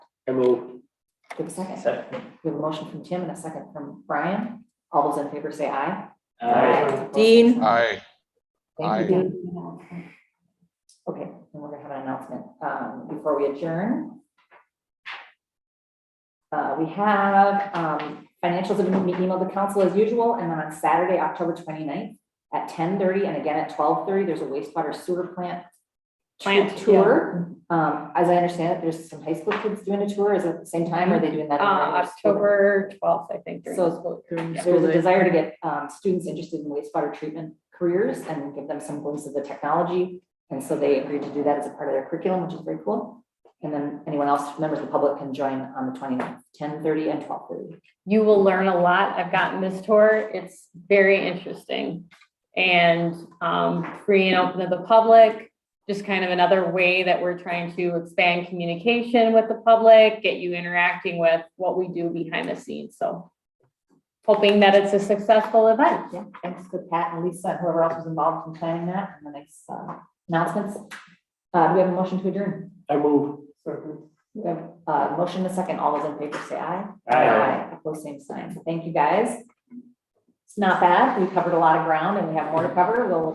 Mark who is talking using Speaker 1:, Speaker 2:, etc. Speaker 1: I move.
Speaker 2: Do we have a second?
Speaker 3: Second.
Speaker 2: We have a motion from Tim and a second from Brian. All those in favor say aye.
Speaker 4: Dean?
Speaker 5: Aye.
Speaker 2: Thank you, Dean. Okay, and we're gonna have an announcement, um, before we adjourn. Uh, we have, um, financials have been emailed to council as usual, and then on Saturday, October 29th at ten thirty, and again at twelve thirty, there's a wastewater sewer plant
Speaker 4: Plant, yeah.
Speaker 2: tour. Um, as I understand it, there's some high school kids doing a tour. Is it the same time? or Are they doing
Speaker 4: Uh,
Speaker 2: that? in another school?
Speaker 4: October twelfth, I think. during
Speaker 2: So-
Speaker 4: the school- during
Speaker 2: There's
Speaker 4: school
Speaker 2: a
Speaker 4: day.
Speaker 2: desire to get um, students interested in wastewater treatment careers and give them some glimpse of the technology. And so they agreed to do that as a part of their curriculum, which is very cool. And then anyone else, members of the public can join on the 29th, 10:30 and 12:30.
Speaker 4: You will learn a lot. I've gotten this tour. It's very interesting. And um, free and open to the public, just kind of another way that we're trying to expand communication with the public, get you interacting with what we do behind the scenes. So hoping that it's a successful event.
Speaker 2: Yeah, thanks to Pat and Lisa, and whoever else was involved in planning that and the next uh, announcements. Uh, Do we have a motion to adjourn?
Speaker 1: I move.
Speaker 2: We have a motion and a second. All those in favor say aye. Opposed, same sign. Thank you, guys. It's not bad. We covered a lot of ground and we have more to cover. We'll